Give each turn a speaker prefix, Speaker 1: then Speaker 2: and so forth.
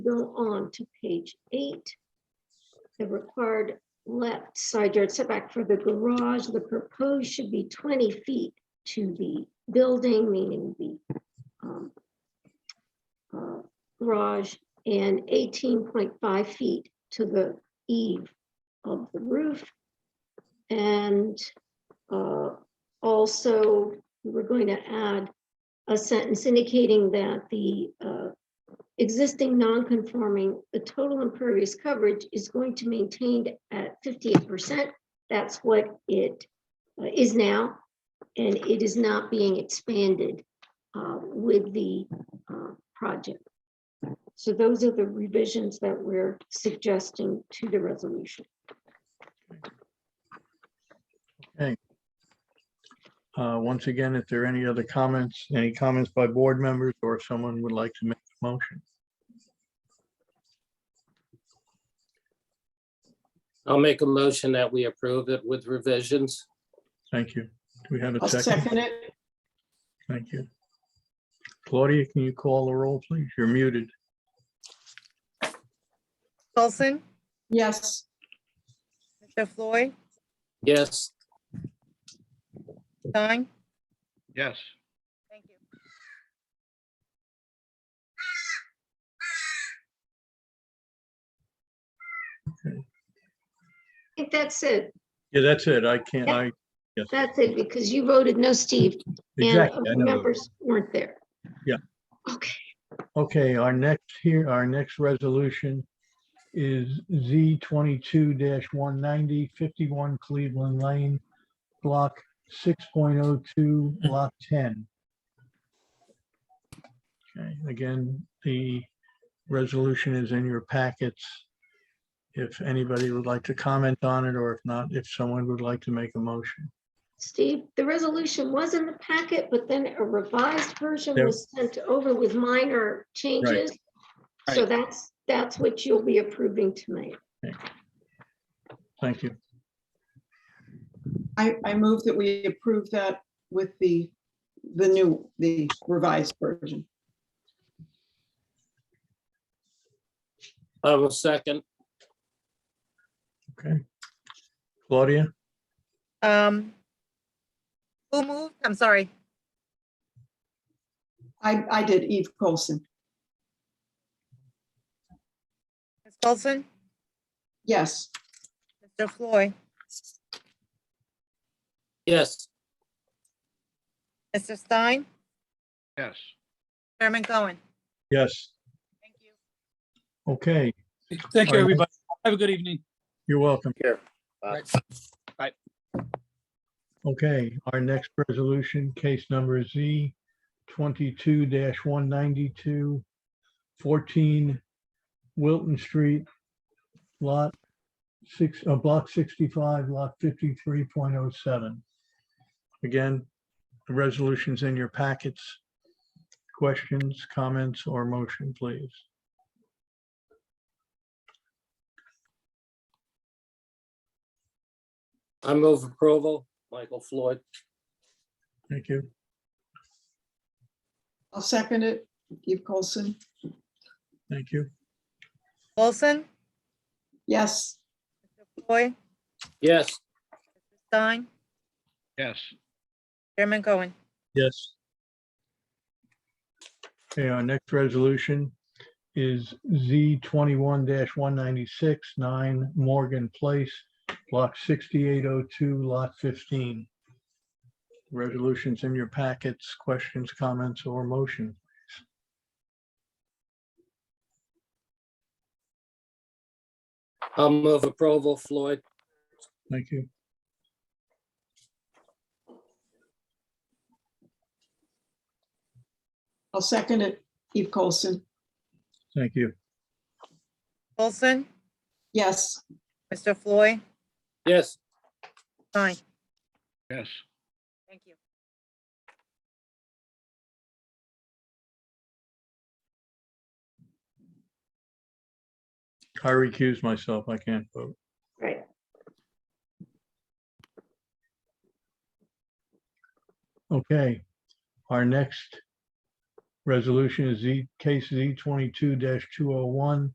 Speaker 1: go on to page eight. The required left side yard setback for the garage, the proposed should be twenty feet to the building, meaning the um, uh, garage, and eighteen point five feet to the eave of the roof. And uh, also, we're going to add a sentence indicating that the uh, existing non-conforming, the total impervious coverage is going to maintained at fifty-eight percent. That's what it uh, is now, and it is not being expanded uh, with the uh, project. So those are the revisions that we're suggesting to the resolution.
Speaker 2: Uh, Once again, if there are any other comments, any comments by board members or if someone would like to make a motion.
Speaker 3: I'll make a motion that we approve it with revisions.
Speaker 2: Thank you. Do we have a
Speaker 4: I'll
Speaker 2: second?
Speaker 4: second it.
Speaker 2: Thank you. Claudia, can you call the roll, please? You're muted.
Speaker 5: Coulson,
Speaker 4: Yes,
Speaker 5: Mr. Floyd,
Speaker 3: Yes,
Speaker 5: Stein.
Speaker 2: Yes.
Speaker 5: Thank you.
Speaker 1: I think that's it.
Speaker 2: Yeah, that's it. I can't, I, yes.
Speaker 1: That's it, because you voted no, Steve, and
Speaker 2: Exactly. I
Speaker 1: other
Speaker 2: know.
Speaker 1: members weren't there.
Speaker 2: Yeah.
Speaker 1: Okay,
Speaker 2: Okay, our next here, our next resolution is Z twenty-two 190 51 Cleveland Lane, block six point oh two, lot ten. Okay, again, the resolution is in your packets. If anybody would like to comment on it, or if not, if someone would like to make a motion.
Speaker 1: Steve, the resolution was in the packet, but then a revised version
Speaker 2: There-
Speaker 1: was sent over with minor changes. So
Speaker 3: Right.
Speaker 1: that's, that's what you'll be approving tonight.
Speaker 2: Thank you.
Speaker 4: I, I move that we approve that with the, the new, the revised version.
Speaker 3: I will second.
Speaker 2: Okay. Claudia,
Speaker 5: Um, who moved? I'm sorry.
Speaker 4: I, I did Eve Colson.
Speaker 5: Ms. Coulson,
Speaker 4: Yes,
Speaker 5: Mr. Floyd,
Speaker 3: Yes,
Speaker 5: Mr. Stein.
Speaker 6: Yes,
Speaker 5: Chairman Cohen.
Speaker 2: yes,
Speaker 5: Thank you.
Speaker 2: okay,
Speaker 7: Thank you,
Speaker 2: Alright.
Speaker 7: everybody. Have a good evening.
Speaker 2: you're welcome.
Speaker 6: Right.
Speaker 2: Okay, our next resolution, case number Z twenty-two one ninety-two fourteen Wilton Street, lot six, uh, block sixty-five, lot fifty-three point oh seven. Again, the resolution's in your packets. Questions, comments, or motion, please?
Speaker 3: I move approval. Michael Floyd.
Speaker 2: Thank you.
Speaker 4: I'll second it. Eve Colson.
Speaker 2: Thank you.
Speaker 5: Coulson,
Speaker 4: Yes,
Speaker 5: Mr. Floyd,
Speaker 3: Yes,
Speaker 5: Stein,
Speaker 6: yes,
Speaker 5: Chairman Cohen.
Speaker 2: Yes. Okay, our next resolution is Z twenty-one one ninety-six, nine Morgan Place, block sixty-eight oh two, lot fifteen. Resolutions in your packets, questions, comments, or motion.
Speaker 3: I'll move approval, Floyd.
Speaker 2: Thank you.
Speaker 4: I'll second it. Eve Colson.
Speaker 2: Thank you.
Speaker 5: Coulson,
Speaker 4: Yes,
Speaker 5: Mr. Floyd,
Speaker 3: Yes,
Speaker 5: Stein.
Speaker 6: yes.
Speaker 5: Thank you.
Speaker 2: I recuse myself. I can't vote.
Speaker 1: Right.
Speaker 2: Okay, our next Resolution is Z, case Z twenty-two two oh one